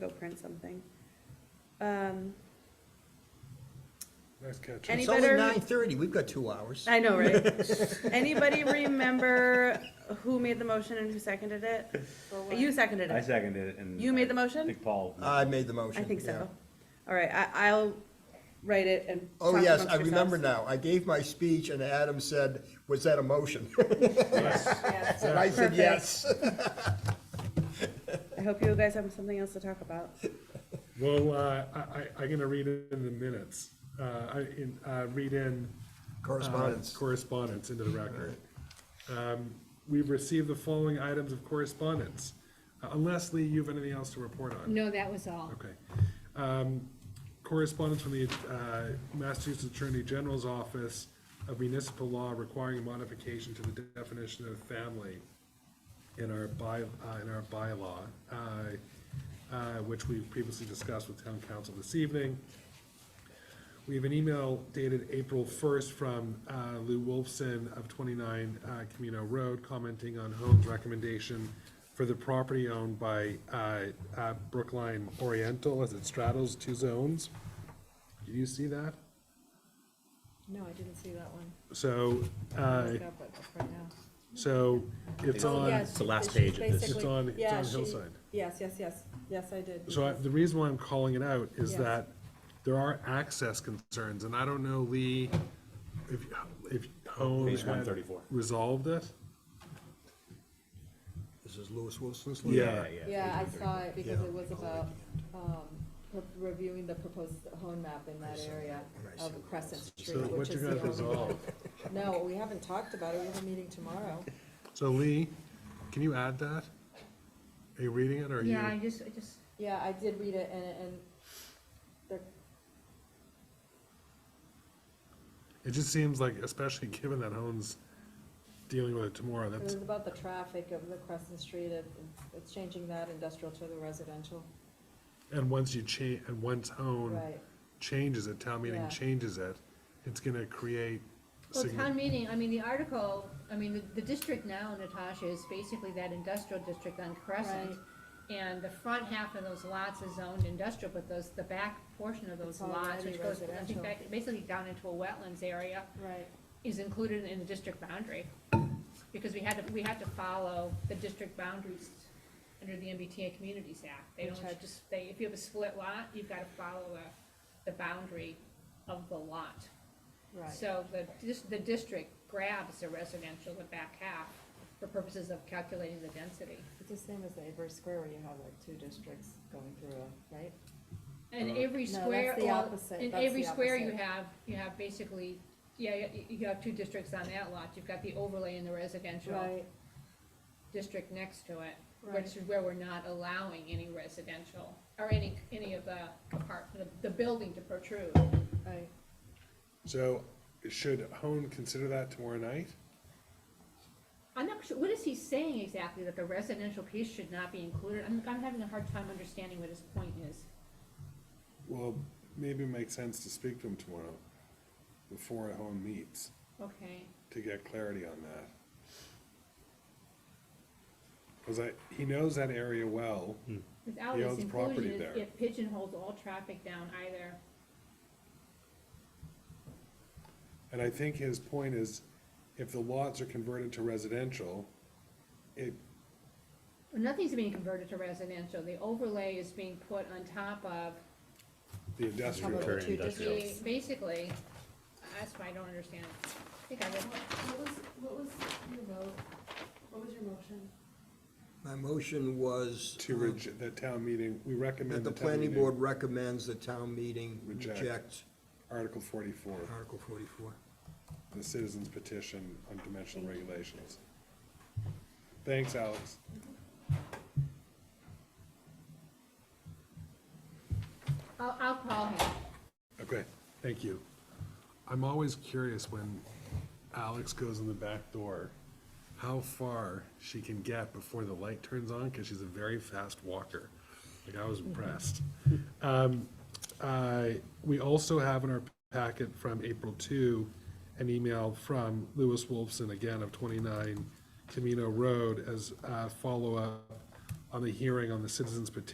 go print something. Um, Nice catch. Any It's only better- nine thirty, we've got two hours. I know, right? Anybody remember who made the motion and who seconded it? You seconded I it. seconded it and. You made the I motion? think Paul. I made the motion. I think yeah. so. All right, I, I'll write it and. Oh, talk yes, amongst I remember yourselves. now. I gave my speech and Adam said, was that a motion? And I Perfect. said, yes. I hope you guys have something else to talk about. Well, uh, I, I, I'm gonna read it in the minutes, uh, I, in, uh, read in. uh, Correspondence. Correspondence into the record. Um, we've received the following items of correspondence. Uh, Unless, Lee, you have anything else to report on? No, that was all. Okay. Um, Correspondence from the uh, Massachusetts Attorney General's Office of Municipal Law requiring a modification to the definition of family in our by, uh, in our bylaw, uh, uh, which we previously discussed with town council this evening. We have an email dated April first from uh, Lou Wolfson of twenty-nine uh, Camino Road commenting on Holmes' recommendation for the property owned by uh, uh, Brookline Oriental as it straddles two zones. Did you see that? No, I didn't see that one. So, I'll uh, look up it right now. so it's Oh, on, yes, the last she- page of this. it's basically- on, it's yeah, on she- Hillside. Yes, yes, yes, yes, I did. So I- the reason why I'm calling it out is Yes. that there are access concerns, and I don't know, Lee, if, if Hone Page had 134. resolved it? This is Lewis Wilson's. Yeah. Yeah, I saw it because Yeah. it was about, um, re- reviewing the proposed home map in that area of Crescent So Street, what which you is the guys only. resolve? No, we haven't talked about it, we have a meeting tomorrow. So Lee, can you add that? Are you reading it or are you? Yeah, I just, I just, Yeah, I did read it and, and there, It just seems like, especially given that Hone's dealing with it tomorrow, it was Mm. that's, about the traffic of the Crescent Street, it- it's- it's changing that industrial to the residential, and once you change, and once Hone right? changes it, town meeting Yeah. changes it, it's gonna create. well, signi- town meeting, I mean, the article, I mean, the, the district now, Natasha, is basically that industrial district on Crescent. And the front half of those lots is zoned industrial, but those, the back portion of those It's already lots, which goes, I residential. think, back, basically down into a wetlands area, Right. is included in the district boundary. Because we had to, we had to follow the district boundaries under the MBTA Communities Act. They Which I- don't just, they, if you have a split lot, you've gotta follow the, the boundary of the lot. Right, So the, dis- the district grabs the residential, the back half, for purposes of calculating the density. it's the same as the Avery Square where you have like two districts going through, a- right? And every No, that's square, the well, opposite. in That's every the square you opposite. have, you have basically, yeah, you- you have two districts on that lot. You've got the overlay in the residential Right, district next to it, Right. which is where we're not allowing any residential, or any, any of the apart, the, the building to protrude. right. So should Hone consider that tomorrow night? I'm not sure, what is he saying exactly, that the residential piece should not be included? I'm, I'm having a hard time understanding what his point is. Well, maybe it makes sense to speak to him tomorrow before Hone meets Okay. to get clarity on that. Cause I, he knows that area well. Without He this owns property inclusion, there. it- it pigeonholes all traffic down either. And I think his point is, if the lots are converted to residential, it, Nothing's being converted to residential. The overlay is being put on top of the How industrial. about the two Industrial. the, districts? basically, that's why I don't understand. it. I think I would, What was, what was your vote? What was your motion? My motion was To uh, reg, the town meeting, we that recommend the the town planning meeting, board recommends the town meeting Reject. reject Article forty-four, Article forty-four. the citizens petition on dimensional regulations. Thanks, Alex. I'll, I'll call him. Okay, thank you. I'm always curious when Alex goes in the back door, how far she can get before the light turns on, because she's a very fast walker. Like, I was impressed. Um, I- We also have in our packet from April 2, an email from Lewis Wolfson, again of 29 Camino Road, as a follow-up on the hearing on the citizens petition